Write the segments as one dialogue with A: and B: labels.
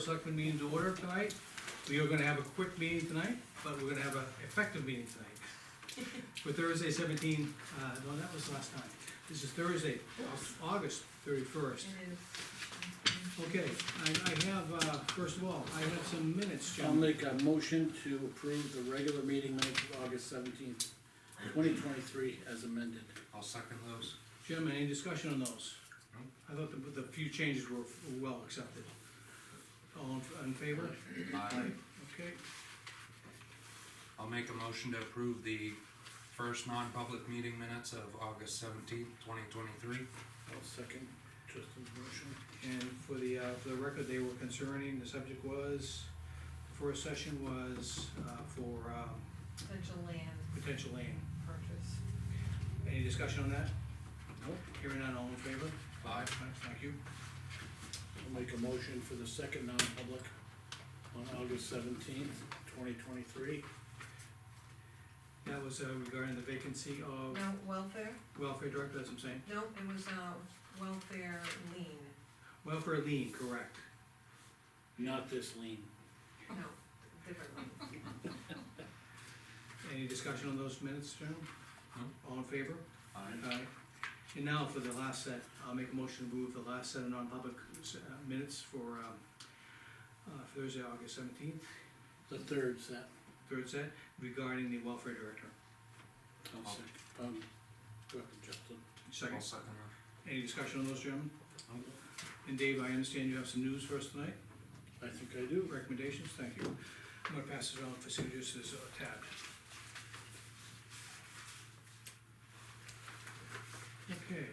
A: Selectmen meeting to order tonight. We are gonna have a quick meeting tonight, but we're gonna have an effective meeting tonight. For Thursday seventeen, uh, no, that was last time. This is Thursday, August thirty-first.
B: It is.
A: Okay, I, I have, uh, first of all, I have some minutes,
C: I'll
A: Jim.
C: make a motion to approve the regular meeting minutes of August seventeenth, twenty twenty-three as amended.
D: I'll second those.
A: Jim, any discussion on those?
D: No.
A: I thought the, the few changes were were well accepted. All in- in favor?
D: Aye.
A: Okay,
D: I'll make a motion to approve the first non-public meeting minutes of August seventeenth, twenty twenty-three.
C: I'll second Tristan's motion.
A: And for the, uh, for the record, they were concerning, the subject was, the first session was, uh, for, um,
B: Potential land
A: potential lane.
B: purchase.
A: Any discussion on that?
C: Nope.
A: Hearing none, all in favor?
D: Aye.
A: Thank you.
C: I'll make a motion for the second non-public on August seventeenth, twenty twenty-three.
A: That was uh, regarding the vacancy of
B: No, welfare,
A: welfare director, that's what I'm saying.
B: no, it was, uh, welfare lien,
A: Welfare lien, correct.
C: Not this lean.
B: no, different lien.
A: Any discussion on those minutes, gentlemen?
D: No.
A: All in favor?
D: Aye.
A: Aye. And now for the last set, I'll make a motion to move the last set of non-public uh, minutes for, um, uh, Thursday, August seventeenth.
C: The third set.
A: Third set regarding the welfare director.
C: I'll
D: I'll-
C: second. Um, go ahead, Justin.
D: I'll
A: Second,
D: second
A: any discussion on those, gentlemen?
D: Nope.
A: And Dave, I understand you have some news for us tonight,
C: I think I do.
A: recommendations, thank you. I'm gonna pass it on for signatures as uh, tabbed. Okay,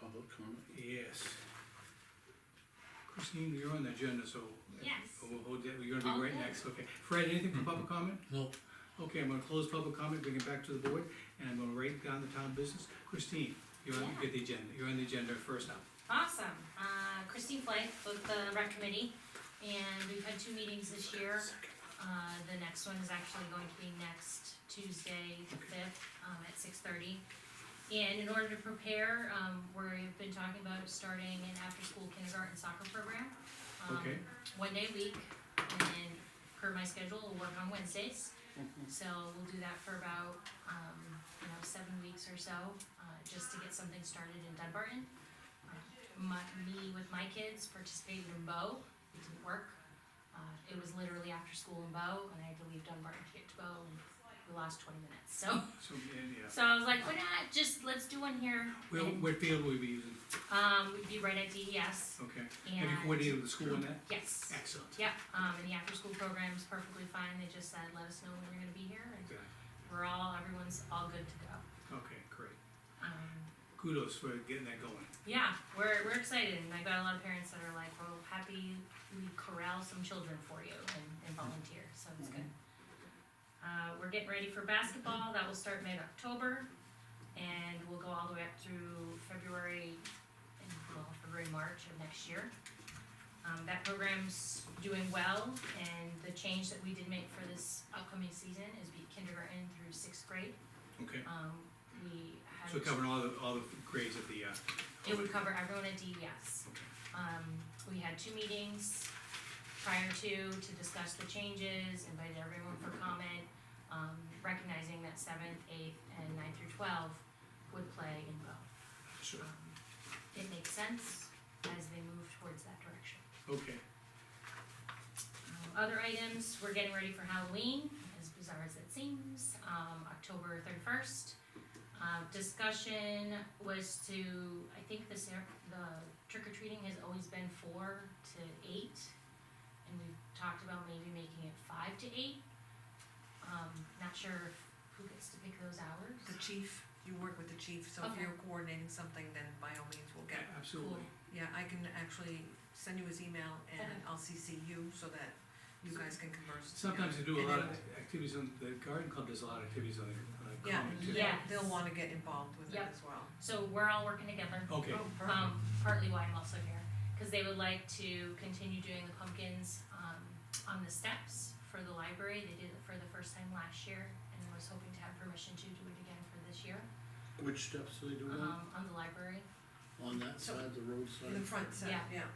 C: Public comment.
A: yes. Christine, you're on the agenda, so.
E: Yes.
A: We'll hold that, we're gonna be right
E: Okay.
A: next, okay. Fred, anything for public comment?
C: No.
A: Okay, I'm gonna close public comment, bring it back to the board, and I'm gonna write down the town business. Christine, you're on,
E: Yeah.
A: get the agenda, you're on the agenda first now.
E: Awesome. Uh, Christine Flake, with the rec committee, and we've had two meetings this year. Uh, the next one is actually going to be next Tuesday, the fifth, um, at six thirty. And in order to prepare, um, we've been talking about starting an after-school kindergarten soccer program. Um,
A: Okay.
E: One day a week, and then per my schedule, we'll work on Wednesdays. So we'll do that for about, um, you know, seven weeks or so, uh, just to get something started in Dunbarton. Uh, My, me with my kids participated in Bo, it didn't work. Uh, it was literally after school in Bo, and I had to leave Dunbarton to get to Bo, and we lost twenty minutes, so.
A: So, and, yeah,
E: So I was like, why not, just, let's do one here.
A: Well,
E: And,
A: what field will we be using?
E: Um, we'd be right at DES,
A: Okay. Have you
E: and,
A: coordinated with the school on that?
E: yes,
A: Excellent.
E: yep, um, and the after-school program's perfectly fine, they just said, let us know when you're gonna be here, and
A: Okay,
E: we're all, everyone's all good to go.
A: okay, great.
E: Um,
A: Kudos for getting that going.
E: yeah, we're, we're excited, and I've got a lot of parents that are like, well, happy we corral some children for you and, and volunteer, so it's good. Uh, we're getting ready for basketball, that will start mid-October, and we'll go all the way up through February, and, well, February, March of next year. Um, that program's doing well, and the change that we did make for this upcoming season is be kindergarten through sixth grade,
A: Okay,
E: um, we had.
A: so covering all the, all the grades of the, uh,
E: It would cover everyone at DES.
A: Okay.
E: Um, we had two meetings prior to, to discuss the changes, invited everyone for comment, um, recognizing that seventh, eighth, and ninth through twelve would play in both.
A: so,
E: Um, It makes sense as they move towards that direction.
A: okay,
E: Um, Other items, we're getting ready for Halloween, as bizarre as it seems, um, October thirty-first. Uh, discussion was to, I think the ser- the trick or treating has always been four to eight. And we've talked about maybe making it five to eight. Um, not sure who gets to pick those hours.
B: The chief, you work with the chief, so if
E: Okay.
B: you're coordinating something, then by all means, we'll
A: Yeah,
B: get.
A: absolutely.
B: Yeah, I can actually send you his email and
E: Okay.
B: I'll CC you so that you guys can converse.
A: Sometimes they do a
B: And
A: lot
B: then-
A: of activities on, the garden club does a lot of activities on the, on the
B: Yeah,
A: common too.
B: they'll,
E: Yes.
B: they'll wanna get involved with it
E: Yep.
B: as well.
E: So we're all working together.
A: Okay,
B: Oh, perfect.
E: um, partly why I'm also here, because they would like to continue doing the pumpkins, um, on the steps for the library. They did it for the first time last year, and I was hoping to have permission to do it again for this year,
C: Which steps are they doing
E: um, on the library.
C: on that side, the road
B: Uh-huh. In the
C: side?
B: front, so,
E: Yeah.
B: yeah.